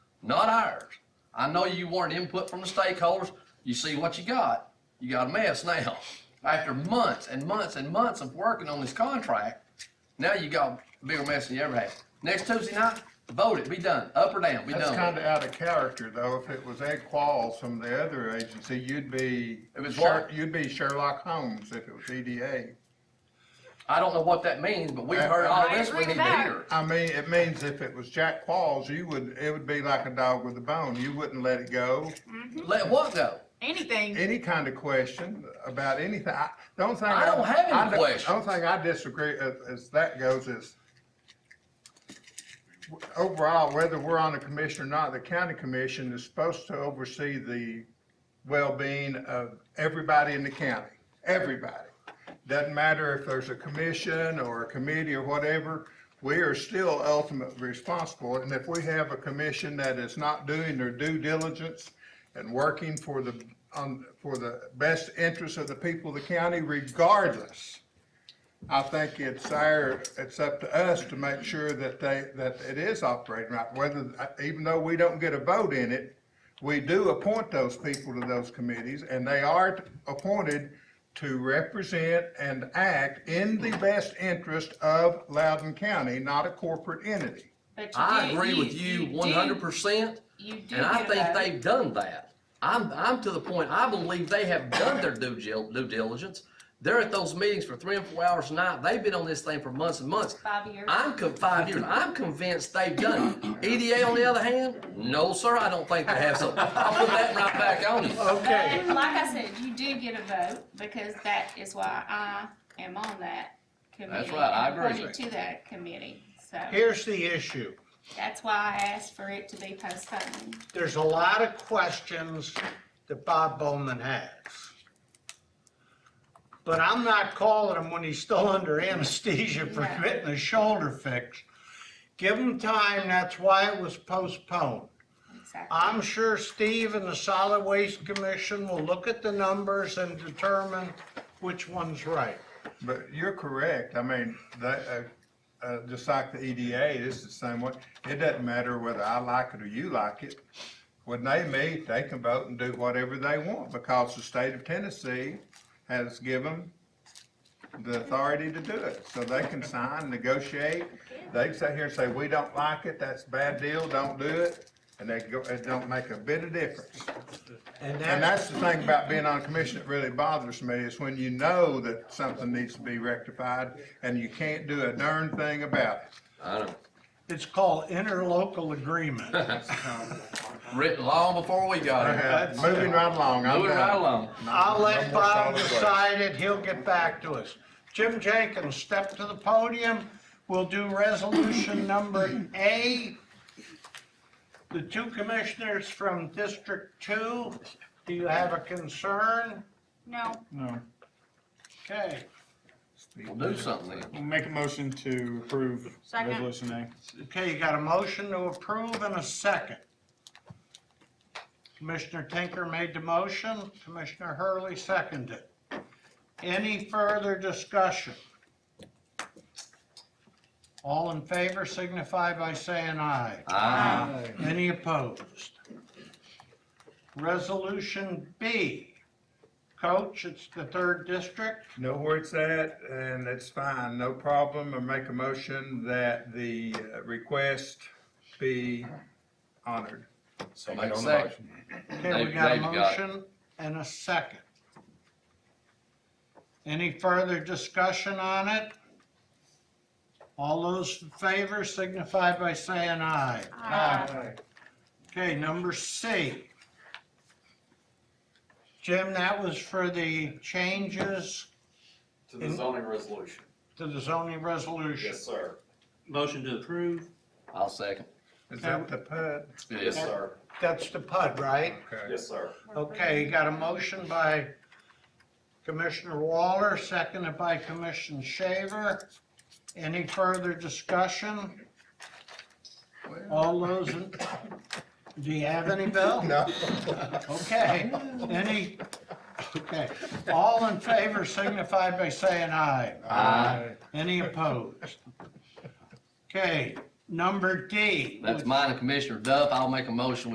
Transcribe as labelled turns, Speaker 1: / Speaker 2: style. Speaker 1: not ours. I know you wanted input from the stakeholders. You see what you got. You got a mess now. After months and months and months of working on this contract, now you got a bigger mess than you ever had. Next Tuesday night, vote it, be done, up or down, be
Speaker 2: That's
Speaker 1: done.
Speaker 2: kind of out of character, though. If it was Ed Qualls from the other agency, you'd be,
Speaker 1: If it's
Speaker 2: Sher-
Speaker 1: what?
Speaker 2: you'd be Sherlock Holmes if it was E EDA.
Speaker 1: I don't know what that means, but we've heard all this we need to hear.
Speaker 2: I mean, it means if it was Jack Qualls, you would, it would be like a dog with a bone. You wouldn't let it go.
Speaker 1: Let what go?
Speaker 3: Anything.
Speaker 2: Any kind of question about anything. I, the only thing.
Speaker 1: I don't have any
Speaker 2: I don't-
Speaker 1: questions.
Speaker 2: The only thing I disagree as, as that goes is overall, whether we're on the commission or not, the county commission is supposed to oversee the well-being of everybody in the county, everybody. Doesn't matter if there's a commission or a committee or whatever, we are still ultimately responsible. And if we have a commission that is not doing their due diligence and working for the, on, for the best interest of the people of the county regardless, I think it's our, it's up to us to make sure that they, that it is operating right. Whether, even though we don't get a vote in it, we do appoint those people to those committees, and they are appointed to represent and act in the best interest of Loudoun County, not a corporate entity.
Speaker 3: But you
Speaker 1: I
Speaker 3: do-
Speaker 1: agree with you
Speaker 3: do-
Speaker 1: one hundred percent,
Speaker 3: You do
Speaker 1: and I
Speaker 3: get a
Speaker 1: think
Speaker 3: vote.
Speaker 1: they've done that. I'm, I'm to the point, I believe they have done their due gil, due diligence. They're at those meetings for three and four hours a night. They've been on this thing for months and months.
Speaker 3: Five years.
Speaker 1: I'm con, five years. I'm convinced they've done it. EDA on the other hand, no, sir, I don't think they have, so I'll put that right back on you.
Speaker 3: But like I said, you do get a vote because that is why I am on that committee.
Speaker 1: right, I
Speaker 3: and
Speaker 1: agree with
Speaker 3: appointed
Speaker 1: you.
Speaker 3: To that committee, so
Speaker 4: Here's the issue.
Speaker 3: that's why I asked for it to be postponed.
Speaker 4: There's a lot of questions that Bob Bowman has. But I'm not calling him when he's still under anesthesia for
Speaker 3: Right.
Speaker 4: getting a shoulder fix. Give him time, that's why it was postponed.
Speaker 3: Exactly.
Speaker 4: I'm sure Steve and the Solid Waste Commission will look at the numbers and determine which one's right.
Speaker 2: But you're correct. I mean, that, uh, uh, just like the EDA, it's the same way. It doesn't matter whether I like it or you like it. When they meet, they can vote and do whatever they want because the state of Tennessee has given the authority to do it. So they can sign, negotiate. They can sit here and say, we don't like it, that's a bad deal, don't do it. And they go, it don't make a bit of difference.
Speaker 4: And
Speaker 2: And
Speaker 4: that's,
Speaker 2: that's the thing about being on a commission that really bothers me, is when you know that something needs to be rectified and you can't do a darn thing about it.
Speaker 1: I know.
Speaker 4: it's called interlocal agreement.
Speaker 1: Written long before we got here.
Speaker 2: Okay, Moving right along, I'm
Speaker 1: Moving right
Speaker 2: done.
Speaker 1: along.
Speaker 4: I'll
Speaker 2: No
Speaker 4: let
Speaker 2: more
Speaker 4: Bob
Speaker 2: solid waste.
Speaker 4: decide it, he'll get back to us. Jim Jenkins, step to the podium, we'll do resolution number A. The two commissioners from District Two, do you have a concern?
Speaker 3: No,
Speaker 5: No,
Speaker 4: Okay,
Speaker 1: We'll do something then.
Speaker 5: we'll make a motion to approve
Speaker 3: Second.
Speaker 5: resolution A.
Speaker 4: okay, you got a motion to approve and a second. Commissioner Tinker made the motion, Commissioner Hurley seconded. Any further discussion? All in favor signify by saying aye.
Speaker 1: Aye.
Speaker 4: Any opposed? Resolution B. Coach, it's the third district.
Speaker 2: Know where it's at, and it's fine, no problem, I make a motion that the uh, request be honored.
Speaker 1: So make a second.
Speaker 4: Okay, we
Speaker 1: Dave-
Speaker 4: got a
Speaker 1: David got it.
Speaker 4: motion and a second. Any further discussion on it? All those in favor signify by saying aye.
Speaker 3: Aye.
Speaker 4: Okay, number C. Jim, that was for the changes
Speaker 6: To the zoning resolution.
Speaker 4: to the zoning resolution.
Speaker 6: Yes, sir.
Speaker 7: Motion to approve?
Speaker 1: I'll second.
Speaker 2: Is that the PUD?
Speaker 6: Yes, sir.
Speaker 4: That's the PUD, right?
Speaker 2: Okay.
Speaker 6: Yes, sir.
Speaker 4: Okay, you got a motion by Commissioner Waller, seconded by Commissioner Shaver. Any further discussion? All those in, do you have any, Bill?
Speaker 2: No.
Speaker 4: Okay, any, okay. All in favor signify by saying aye.
Speaker 1: Aye.
Speaker 4: Any opposed? Okay, number D.
Speaker 1: That's mine and Commissioner Duff. I'll make a motion.